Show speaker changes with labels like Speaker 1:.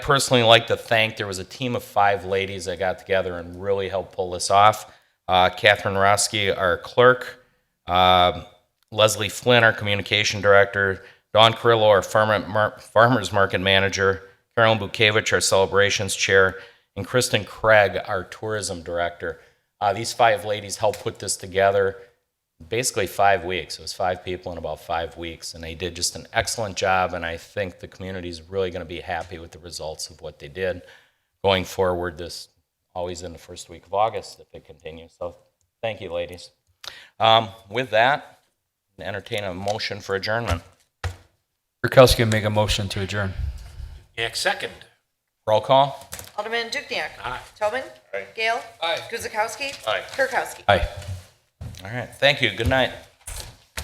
Speaker 1: personally like to thank there was a team of five ladies that got together and really helped pull this off uh, catherine roski our clerk um leslie flynn our communication director don carrillo our farmer, mar- farmers market manager carolyn bukevich our celebrations chair and kristen craig our tourism director uh, these five ladies helped put this together basically five weeks. It was five people in about five weeks, and they did just an excellent job. And I think the community is really going to be happy with the results of what they did going forward. This always in the first week of August if it continues. So thank you, ladies. Um, with that, entertain a motion for adjournment.
Speaker 2: Kirkowski will make a motion to adjourn.
Speaker 3: Next second.
Speaker 1: Roll call.
Speaker 4: Alderman Dukniak.
Speaker 3: Aye.
Speaker 4: Tobin. Gale.
Speaker 3: Aye.
Speaker 4: Guzekowski.
Speaker 3: Aye.
Speaker 4: Kirkowski.
Speaker 1: Aye. All right. Thank you. Good night.